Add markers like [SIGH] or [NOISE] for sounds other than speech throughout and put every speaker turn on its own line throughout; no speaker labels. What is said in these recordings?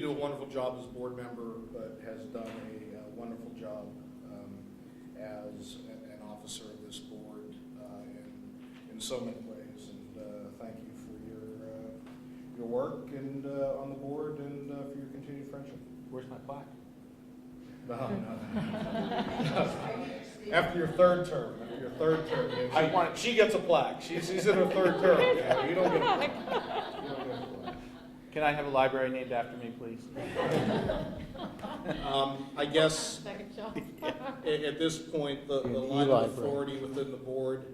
do a wonderful job as a board member, but has done a uh, wonderful job um, as a- an officer of this board uh, in, in so many ways. And uh, thank you for your, uh, your work and uh, on the board and uh, for your continued friendship.
Where's my plaque?
No, no. [LAUGHS] After your third term, after your third term. if she-
I want-
She gets a plaque. She's, [LAUGHS] she's in her third term.
[LAUGHS]
Yeah, You don't get a plaque. You don't get a plaque.
Can I have a library named after me, please?
Um, I guess
Second shot.
at, at this point, the, the
An
line
Eli
of
Brown.
authority within the board,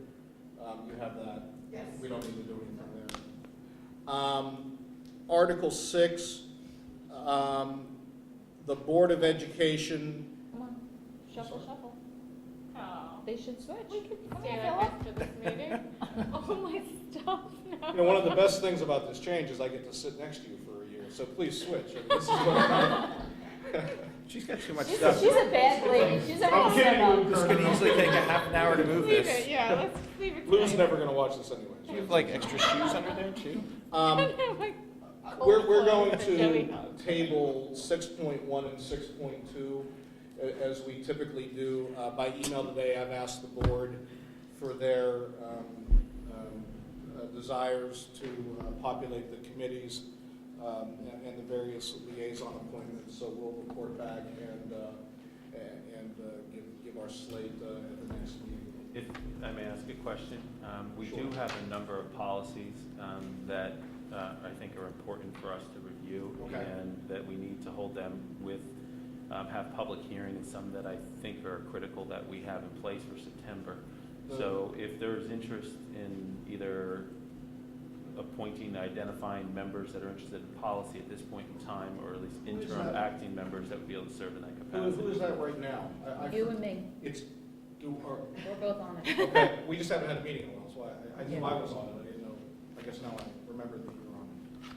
um, you have that.
Yes.
We don't need to do anything there. Um, Article six, um, the Board of Education,
Come on, shuffle, shuffle.
Oh,
They should switch.
we could
Come
stay
here,
like
Philip.
that for this
[LAUGHS]
meeting. All my stuff now.
you know, one of the best things about this change is I get to sit next to you for a year, so please switch. I mean, this is what-
She's got too much
She's,
stuff.
she's a bad lady. She's a
I'm kidding you,
real
This could easily take a half an hour to move
Leave it,
this.
yeah, let's leave it.
Lou's
blank. [LAUGHS]
never gonna watch this
Do you [LAUGHS]
anyways.
have like extra shoes under there too?
Um,
Like,
We're, we're going
Coldplay, the Joey
to
Hug.
table six point one and six point two, as we typically do. Uh, by email today, I've asked the board for their, um, um, uh, desires to uh, populate the committees, um, and, and the various liaison appointments, so we'll report back and, uh, a- and, uh, give, give our slate, uh, at the next meeting.
If I may ask a question, um, we do
Sure.
have a number of policies um, that uh, I think are important for us to review.
Okay.
And that we need to hold them with, um, have public hearing and some that I think are critical that we have in place for September. So if there's interest in either appointing, identifying members that are interested in policy at this point in time, or at least
Who is
interim
that?
acting members that would be able to serve in that
Who, who is
capacity.
that right now? I- I-
You and me,
It's, do, are,
we're both on
[LAUGHS]
it.
Okay, we just haven't had a meeting in a while, so I, I knew I was on it, I didn't know, I guess now I remember that you were on it.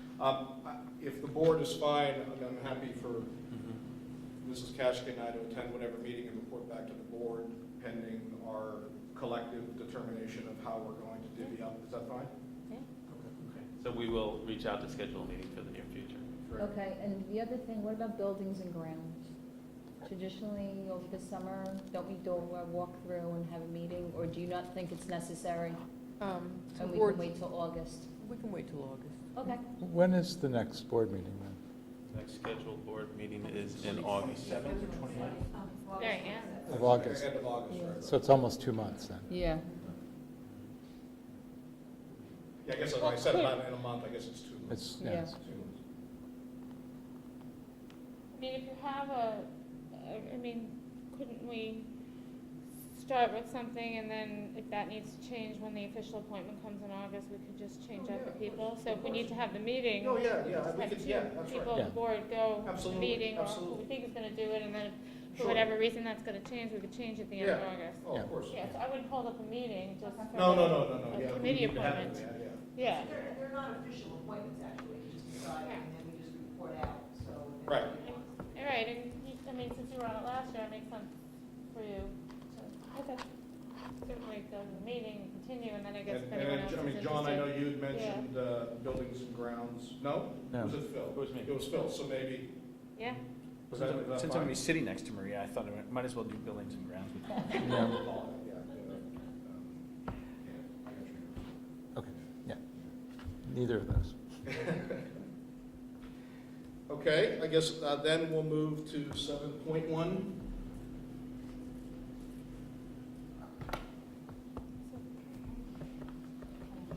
Um, I- if the board is fine, I'm, I'm happy for
Mhm.
Mrs. Kashke and I to attend whatever meeting and report back to the board pending our collective determination of how we're going to divvy up, is that fine?
Yeah.
Okay.
So we will reach out to schedule a meeting for the near future.
Great.
Okay, and the other thing, what about buildings and grounds? Traditionally, over the summer, don't we do a walkthrough and have a meeting, or do you not think it's necessary?
Um, so
And we
board-
can wait till August?
we can wait till August.
Okay.
When is the next board meeting, then?
Next scheduled board meeting is in August.
Seventh or twenty-ninth?
There I am.
Of August.
End of August, right.
So it's almost two months, then?
Yeah.
Yeah, I guess, like I said, about in a month, I guess it's two months.
It's, yeah, Oh, it's-
Two months.
I mean, if you have a, I- I mean, couldn't we start with something and then if that needs to change when the official appointment comes in August, we could just change
Oh,
out
yeah,
the
of
people?
course,
So
of
if we need to
course.
have the meeting,
No, Oh, yeah, yeah,
just
we
have
could- yeah,
two
that's right.
people on
Yeah.
the board go to the
Absolutely,
meeting or who
absolutely.
we think is gonna do it and then if- for
Sure.
whatever reason that's gonna change, we could change at the end of
Yeah.
August.
Oh,
Yeah.
of course.
Yeah, so I wouldn't hold up a meeting just for.
No, no, no, no, no,
A
yeah.
committee
we have it,
appointment.
Yeah, yeah.
Yeah,
They're, they're not official appointments, actually, we just decide, and then we just report out, so. if
Right.
anybody wants-
all right, and you, I mean, since you were on it last year, it makes sense for you to, okay. Certainly go to the meeting, continue, and then I guess if
And,
anyone
and,
else is
I mean,
interested.
John, I know you had mentioned, uh, buildings and grounds, no?
No.
Was it Phil?
It was me.
It was Phil, so maybe,
Yeah,
was that, was that
Since I'm
fine?
gonna be sitting next to Maria, I thought I might as well do buildings and grounds with her.
Yeah,
Yeah.
yeah, um, yeah, I got you.
okay, yeah. Neither of those.
Okay, I guess, uh, then we'll move to seven point one.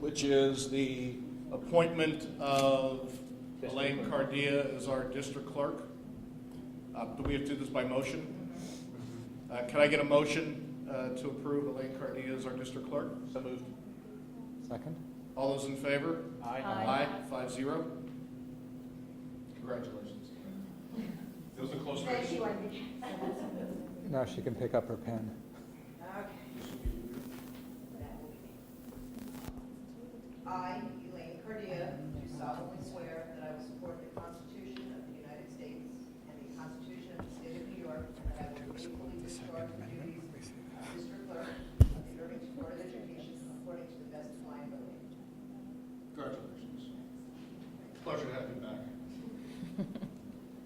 Which is the appointment of Elaine Cardia as our district clerk. Uh, do we have to do this by motion? Uh, can I get a motion, uh, to approve Elaine Cardia as our district clerk? So moved.
Second?
All those in favor?
Aye.
Five zero. Congratulations. It was a close race.
Thank you, I think.
Now she can pick up her pen.
Okay, that will be me. I, Elaine Cardia, do solemnly swear that I will support the Constitution of the United States and the Constitution of the State of New York, and that I will faithfully discharge the duties of district clerk of the Irving Board of Education according to the best of my ability.
Congratulations. Pleasure to have you.